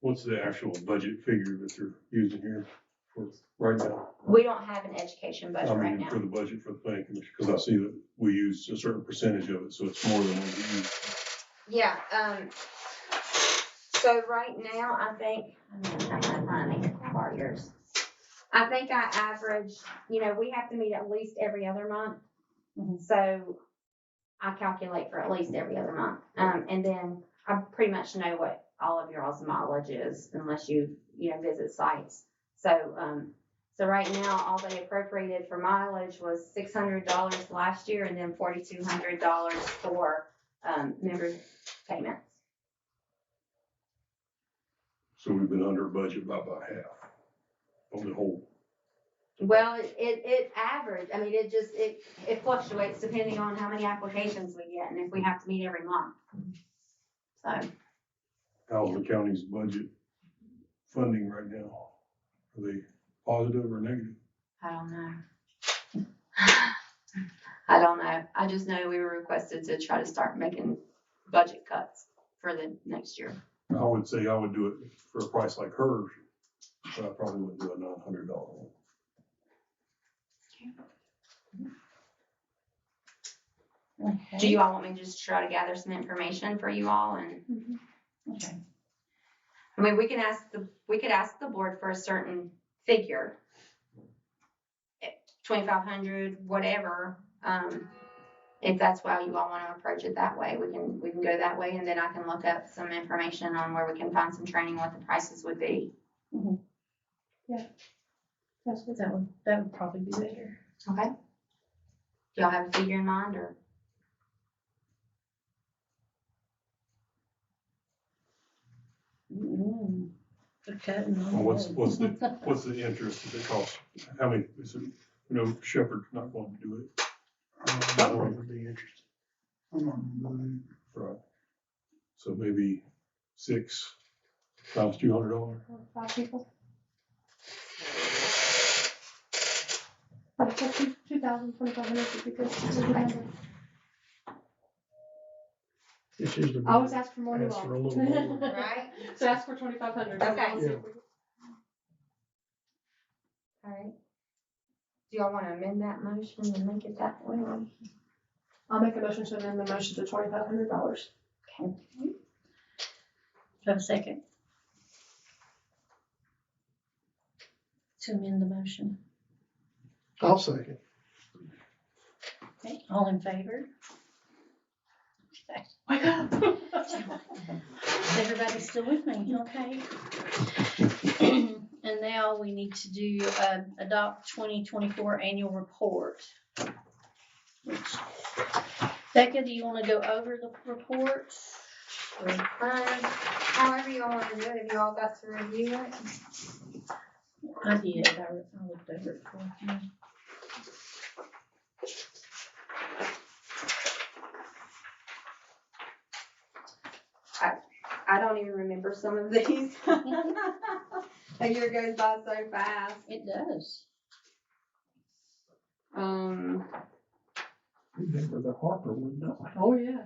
what's the actual budget figure that they're using here for right now? We don't have an education budget I right mean, For now. the budget for the planning commission, because I see that we use a certain percentage of it, so it's more than what we use. Yeah, um, so right now, I think, I'm gonna have to find it, I borrow yours. I think I average, you know, we have to meet at least every other month. Mhm. So I calculate for at least every other month. Um, and then I pretty much know what all of y'all's mileage is unless you, you know, visit sites. So, um, so right now, all they appropriated for mileage was six hundred dollars last year and then forty-two hundred dollars for, um, member payments. So we've been under budget by about half on the whole. Well, it, it, it average, I mean, it just, it, it fluctuates depending on how many applications we get and if we have to meet every month. So, How's the county's budget funding right now? Are they positive or negative? I don't know. I don't know, I just know we were requested to try to start making budget cuts for the next year. I would say I would do it for a price like hers, but I probably wouldn't do a nine hundred dollar one. Do you all want me to just try to gather some information for you all and, Okay. I mean, we can ask the, we could ask the board for a certain figure. Twenty-five hundred, whatever, um, if that's why you all wanna approach it that way, we can, we can go that way and then I can look up some information on where we can find some training, what the prices would be. That's what that would, that would probably be better. Okay. Do y'all have a figure in mind or? Mm, They're cutting on Well, what's, wood. what's the, what's the interest that it costs? How many, is it, you know, Shepherd's not going to do it. I would be interested. I'm not really- Right. So maybe six times two hundred dollars. Five people. But two, two thousand twenty-five hundred would be good. It's a good number. This is the. I always ask for more than Ask for a little more. Right. So ask for twenty-five hundred. Okay. Yeah. Alright. Do y'all wanna amend that motion and make it that way? I'll make a motion to amend the motion to twenty-five hundred dollars. Do I have a second? To amend the motion. I'll second. Okay, all in favor? Okay. Wake up. Is everybody still with me? Okay. And now we need to do, um, adopt twenty twenty-four annual report. Becca, do you wanna go over the report? Um, however you all wanna do it, if you all got to review it. I did, I I looked over it for you. I don't even remember some of these. A year goes by so fast. It does. Um, Remember the Harper one, no? Oh, yeah.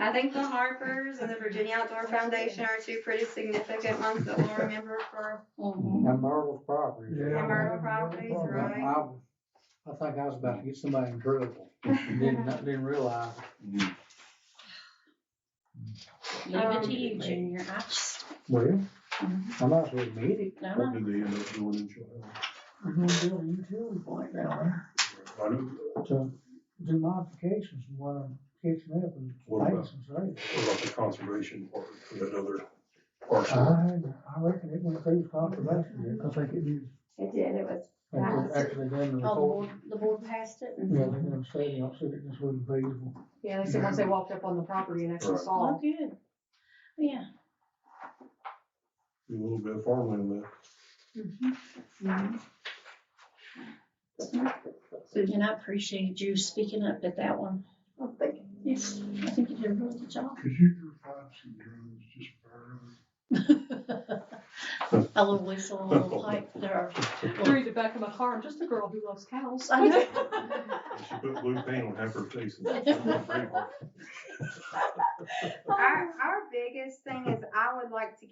I think the Harpers and the Virginia Outdoor Foundation are two pretty significant ones that we'll remember for. Mhm. And Marvel's property. Yeah. Myrtle properties, I, right? I- I think I was about to get somebody in trouble, didn't, didn't realize. Leave it to you, Um, Junior. I just, Well, I might as well meet it. I What don't did they end up doing in July? I'm gonna do a utility plant down I know, there to do modifications and what I'm fixing up and What about- things and say. what about the conservation part, that other Uh-huh. parcel? I, I reckon it went through conservation, I think it is. It did, it was, and it's actually done the know. Oh, the report. board, the board passed it? Yeah, they're gonna say, they don't say it just wasn't feasible. Yeah, they said once they walked up on the property and actually Right. saw. Oh, good. Yeah. A little bit of farmland left. Mm-hmm. And I appreciated you speaking up at that one. Oh, I'm thinking. Yes. I think you did a really good job. Could you find some drones just burn? A little whistle, a little pipe there. Through the back of my car, I'm just a girl who loves cows. I know. She put blue paint on half her face. our, our biggest thing is I would like to